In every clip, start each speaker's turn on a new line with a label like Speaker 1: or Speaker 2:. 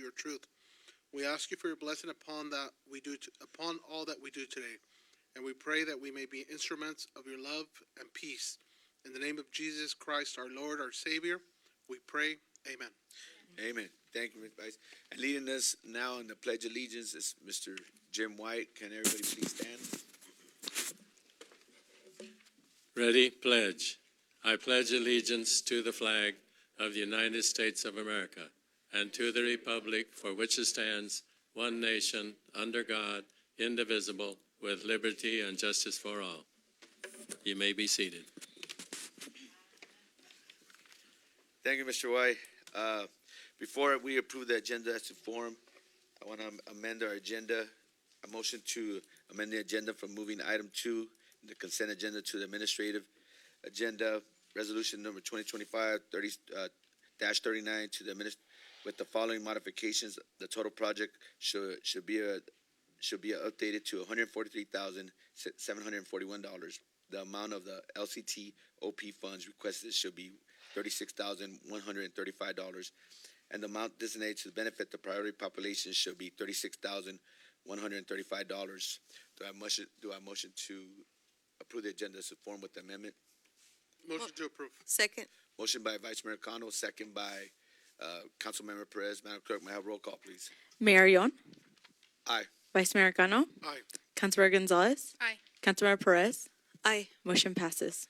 Speaker 1: your truth. We ask you for your blessing upon that we do t- upon all that we do today, and we pray that we may be instruments of your love and peace. In the name of Jesus Christ, our Lord, our Savior, we pray. Amen.
Speaker 2: Amen. Thank you, Mr. Vice. And leading us now in the Pledge of Allegiance is Mr. Jim White. Can everybody please stand?
Speaker 3: Ready, pledge. I pledge allegiance to the flag of the United States of America and to the republic for which it stands, one nation, under God, indivisible, with liberty and justice for all. You may be seated.
Speaker 2: Thank you, Mr. White. Uh, Before we approve the agenda as to form, I want to amend our agenda. A motion to amend the agenda from moving item two, the consent agenda to the administrative agenda, resolution number 2025 30, uh, dash 39 to the minis, with the following modifications, the total project should, should be, uh, should be updated to $143,741. The amount of the LCT OP funds requested should be thirty-six thousand one hundred and thirty-five dollars, and the amount designated to benefit the priority population should be thirty-six thousand one hundred and thirty-five dollars. Do I motion, do I motion to approve the agenda as form with the amendment?
Speaker 1: Motion to approve.
Speaker 4: Second,
Speaker 2: Motion by Vice Mayor Kano, second by, uh, Councilmember Perez. Madam Clerk, may I have roll call, please?
Speaker 5: Mayor Yon.
Speaker 2: Aye.
Speaker 5: Vice Mayor Gano.
Speaker 1: Aye.
Speaker 5: Councilor Gonzalez.
Speaker 6: Aye.
Speaker 5: Councilor Perez.
Speaker 4: aye.
Speaker 5: Motion passes.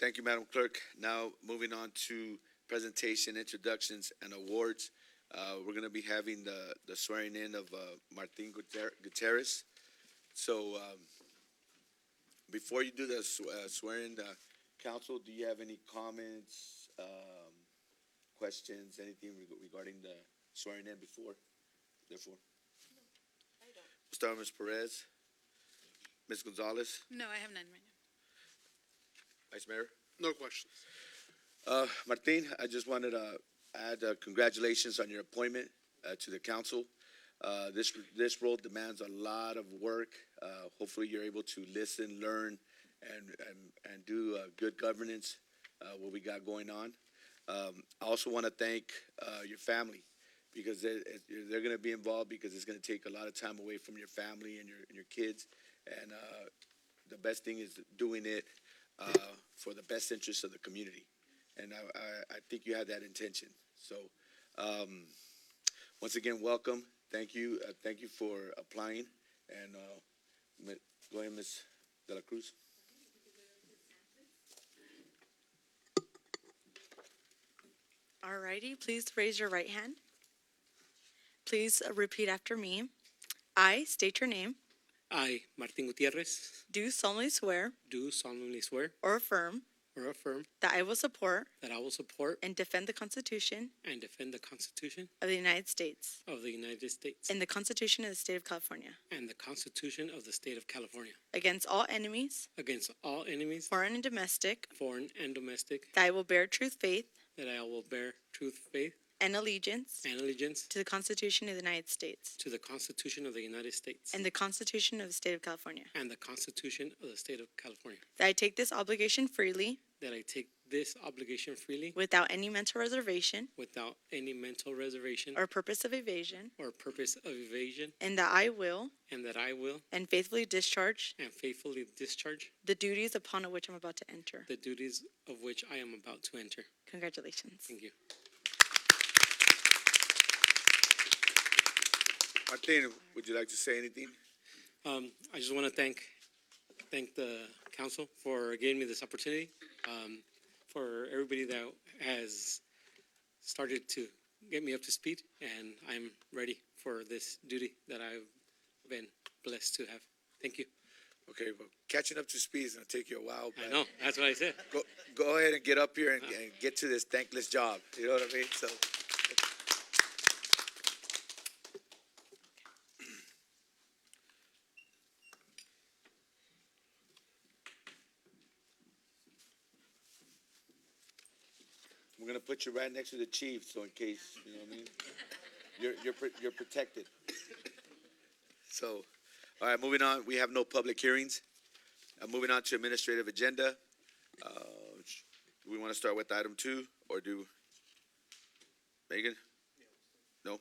Speaker 2: Thank you, Madam Clerk. Now, moving on to presentation, introductions, and awards. Uh, We're going to be having the the swearing in of uh, Martin Guter- Gutierrez. So um, before you do the sw- uh, swearing, uh, council, do you have any comments, um, questions, anything reg- regarding the swearing in before, therefore? We'll start with Ms. Perez. Ms. Gonzalez,
Speaker 6: No, I have none right now.
Speaker 2: Vice Mayor.
Speaker 1: No questions.
Speaker 2: Uh, Martin, I just wanted to add uh, congratulations on your appointment uh, to the council. Uh, This, this role demands a lot of work. Uh, Hopefully, you're able to listen, learn, and, and, and do uh, good governance, uh, what we got going on. Um, I also want to thank uh, your family, because they're, they're going to be involved, because it's going to take a lot of time away from your family and your, and your kids. And uh, the best thing is doing it uh, for the best interest of the community and I, I, I think you had that intention. So, um, once again, welcome. Thank you. Uh, thank you for applying. And uh, mi- go ahead, Ms. De La Cruz.
Speaker 5: Alrighty, please raise your right hand. Please repeat after me. I state your name,
Speaker 7: I, Martin Gutierrez,
Speaker 5: do solemnly swear
Speaker 7: do solemnly swear
Speaker 5: or affirm
Speaker 7: or affirm
Speaker 5: that I will support
Speaker 7: that I will support
Speaker 5: and defend the Constitution
Speaker 7: and defend the Constitution
Speaker 5: of the United States
Speaker 7: of the United States
Speaker 5: and the Constitution of the State of California
Speaker 7: and the Constitution of the State of California
Speaker 5: against all enemies,
Speaker 7: against all enemies,
Speaker 5: foreign and domestic,
Speaker 7: foreign and domestic,
Speaker 5: that I will bear true faith
Speaker 7: that I will bear truth, faith,
Speaker 5: and allegiance
Speaker 7: and allegiance
Speaker 5: to the Constitution of the United States
Speaker 7: to the Constitution of the United States
Speaker 5: and the Constitution of the State of California.
Speaker 7: and the Constitution of the State of California,
Speaker 5: That I take this obligation freely,
Speaker 7: that I take this obligation freely
Speaker 5: without any mental reservation
Speaker 7: without any mental reservation
Speaker 5: or purpose of evasion,
Speaker 7: or purpose of evasion,
Speaker 5: and that I will
Speaker 7: and that I will
Speaker 5: and faithfully discharge
Speaker 7: and faithfully discharge
Speaker 5: the duties upon which I'm about to enter.
Speaker 7: the duties of which I am about to enter.
Speaker 5: Congratulations.
Speaker 7: Thank you.
Speaker 2: Martin, would you like to say anything?
Speaker 7: Um, I just want to thank, thank the council for giving me this opportunity, um, for everybody that has started to get me up to speed, and I'm ready for this duty that I've been blessed to have. Thank you.
Speaker 2: Okay, well, catching up to speed is going to take you a while.
Speaker 7: I
Speaker 2: but
Speaker 7: know, that's what I said.
Speaker 2: Go, go ahead and get up here and, and get to this thankless job. You know what I mean? So, we're going to put you right next to the chief, so in case, you know what I mean? You're, you're, pr- you're protected. So, all right, moving on, we have no public hearings. Uh, moving on to administrative agenda. Uh, sh- Do we want to start with item two, or do? Megan? No?